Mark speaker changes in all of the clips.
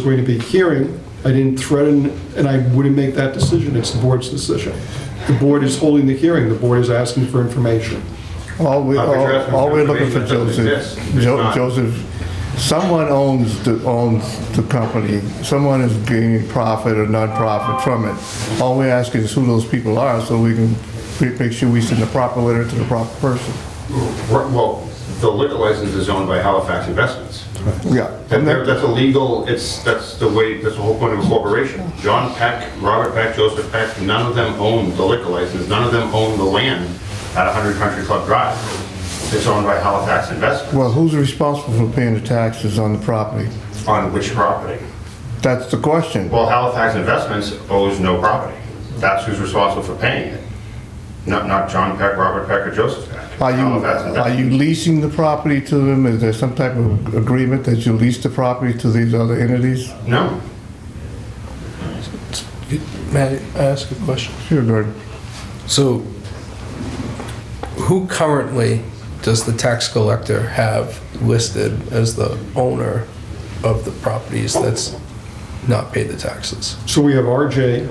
Speaker 1: going to be hearing. I didn't threaten, and I wouldn't make that decision. It's the board's decision. The board is holding the hearing. The board is asking for information.
Speaker 2: All we,
Speaker 3: Not that you're asking
Speaker 2: all all we're
Speaker 3: for
Speaker 2: looking for
Speaker 3: information that doesn't
Speaker 2: Joseph,
Speaker 3: exist. It's
Speaker 2: Jo-
Speaker 3: not.
Speaker 2: Joseph, someone owns the, owns the company. Someone is gaining profit or non-profit from it. All we're asking is who those people are so we can pre- make sure we send the proper letter to the proper person.
Speaker 3: Well, the liquor license is owned by Halifax Investments.
Speaker 2: Yeah.
Speaker 3: That- That's a legal, it's, that's the way, that's the whole point of a corporation. John Peck, Robert Peck, Joseph Peck, none of them own the liquor license, none of them own the land at 100 Country Club Drive. It's owned by Halifax Investments.
Speaker 2: Well, who's responsible for paying the taxes on the property?
Speaker 3: On which property?
Speaker 2: That's the question.
Speaker 3: Well, Halifax Investments owes no property. That's who's responsible for paying it. Not, not John Peck, Robert Peck, or Joseph Peck.
Speaker 2: Are you,
Speaker 3: Halifax
Speaker 2: are
Speaker 3: Investments.
Speaker 2: you leasing the property to them? Is there some type of agreement that you lease the property to these other entities?
Speaker 3: No.
Speaker 4: Matt, I ask a question?
Speaker 2: Sure, Gordon.
Speaker 4: So, who currently does the tax collector have listed as the owner of the properties that's not paid the taxes?
Speaker 1: So we have RJ,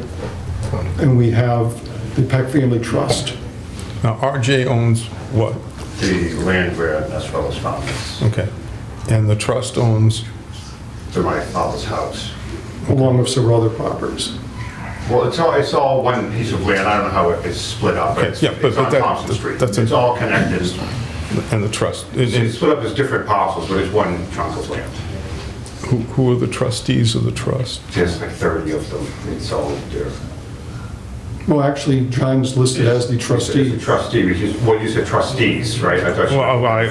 Speaker 1: and we have the Peck Family Trust.
Speaker 5: Now, RJ owns what?
Speaker 3: The land where Nesfellow's found is,
Speaker 5: Okay. And the trust owns,
Speaker 3: to my father's house.
Speaker 1: along with several other properties.
Speaker 3: Well, it's all, it's all one piece of land, I don't know how it is split up, but it's
Speaker 5: Yeah, but-
Speaker 3: it's on
Speaker 5: but that-
Speaker 3: Thompson Street.
Speaker 5: that's a-
Speaker 3: It's all connected, It's-
Speaker 5: and the trust, and-
Speaker 3: it's
Speaker 5: and
Speaker 3: split up as different parcels, but it's one chunk of land.
Speaker 5: who who are the trustees of the trust?
Speaker 3: There's like 30 of them, it's all there.
Speaker 1: Well, actually, John's listed as the
Speaker 3: It's
Speaker 1: trustee.
Speaker 3: a Trustee, which is, well, you said trustees, right? I thought you-
Speaker 5: Well, I-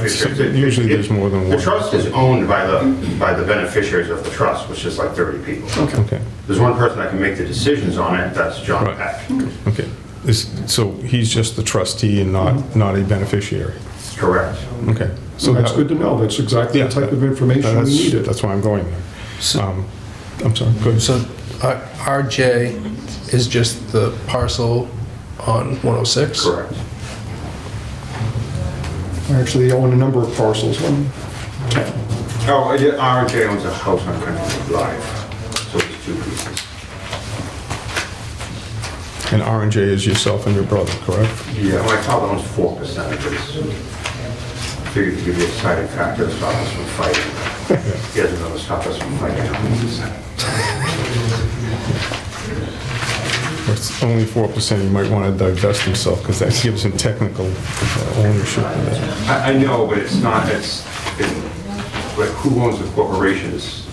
Speaker 5: usually there's more than
Speaker 3: The
Speaker 5: one.
Speaker 3: trust is owned by the, by the beneficiaries of the trust, which is like 30 people.
Speaker 5: Okay,
Speaker 3: There's one person that can make the decisions on it, that's John
Speaker 5: Right.
Speaker 3: Peck.
Speaker 5: okay. Is- So he's just the trustee and not, not a beneficiary?
Speaker 3: Correct.
Speaker 5: Okay.
Speaker 1: So
Speaker 5: So
Speaker 1: Mm-hmm. that's
Speaker 5: that-
Speaker 1: good to know. That's exactly
Speaker 5: Yeah,
Speaker 1: the type of
Speaker 5: that-
Speaker 1: information we
Speaker 5: that's-
Speaker 1: needed.
Speaker 5: That's why I'm going there. Um, I'm sorry, go ahead.
Speaker 4: So, uh, RJ is just the parcel on 106?
Speaker 3: Correct.
Speaker 1: Actually, they own a number of parcels. One,
Speaker 3: Oh, I did- RJ owns a house on Country Drive, so it's two pieces.
Speaker 5: And RJ is yourself and your brother, correct?
Speaker 3: Yeah, my father owns four percent of this. Figured to give you a side fact to stop us from fighting. He doesn't know to stop us from fighting.
Speaker 5: It's only 4%, he might want to divest himself because that gives him technical uh, ownership of that.
Speaker 3: I, I know, but it's not, it's, it- but who owns the corporations?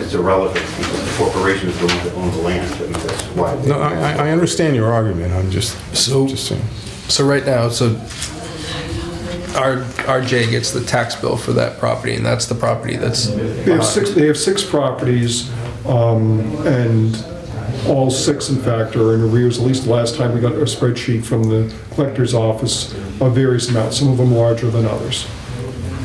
Speaker 3: It's irrelevant, because the corporations are the ones that own the land, and that's why. they-
Speaker 5: No, I, I- I understand your argument, I'm just,
Speaker 4: So-
Speaker 5: just saying.
Speaker 4: So right now, so R- RJ gets the tax bill for that property, and that's the property that's,
Speaker 1: They have six, they have six properties, um, and all six, in fact, are in arrears. At least the last time we got a spreadsheet from the collector's office of various amounts, some of them larger than others.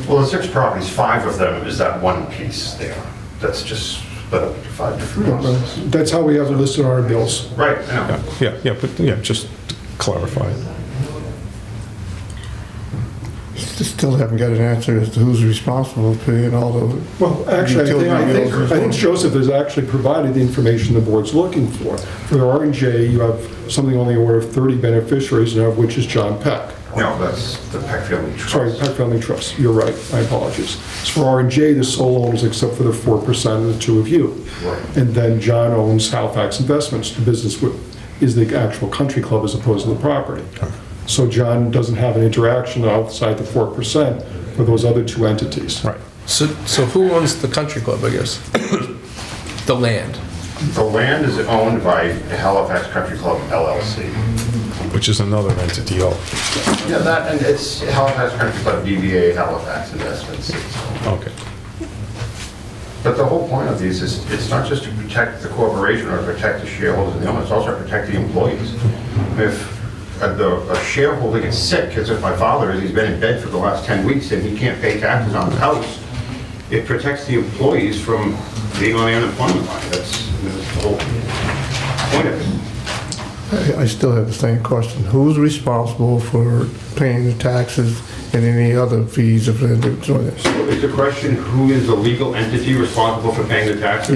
Speaker 3: Well, the six properties, five of them is that one piece there. That's just, split up into five different houses.
Speaker 1: That's how we have it listed on our bills.
Speaker 3: Right, I know.
Speaker 5: Yeah, yeah, but, yeah, just to clarify.
Speaker 2: Still haven't got an answer as to who's responsible for paying all the,
Speaker 1: Well, actually, I think- I think, I think Joseph has actually provided the information the board's looking for. For R and J, you have something on the order of 30 beneficiaries, and of which is John Peck.
Speaker 3: No, that's the Peck Family Trust.
Speaker 1: Sorry, Peck Family Trust, you're right, my apologies. As for R and J, the sole owners except for the 4% of the two of you.
Speaker 3: Right.
Speaker 1: And then John owns Halifax Investments, the business with- is the actual country club as opposed to the property. So John doesn't have an interaction outside the 4% for those other two entities.
Speaker 5: Right.
Speaker 4: so, so who owns the country club, I guess? The land.
Speaker 3: The land is owned by Halifax Country Club LLC.
Speaker 5: Which is another entity, oh,
Speaker 3: Yeah, that, and it's Halifax Country Club DBA Halifax Investments.
Speaker 5: okay.
Speaker 3: But the whole point of these is, it's not just to protect the corporation or protect the shareholders and the owners, it's also to protect the employees. If a- the a shareholder gets sick, as if my father is, he's been in bed for the last 10 weeks and he can't pay taxes on his house, it protects the employees from being on the unemployment line. That's that's the whole point of it.
Speaker 2: I I still have the same question. Who's responsible for paying the taxes and any other fees if they're doing this?
Speaker 3: Is the question, who is the legal entity responsible for paying the taxes?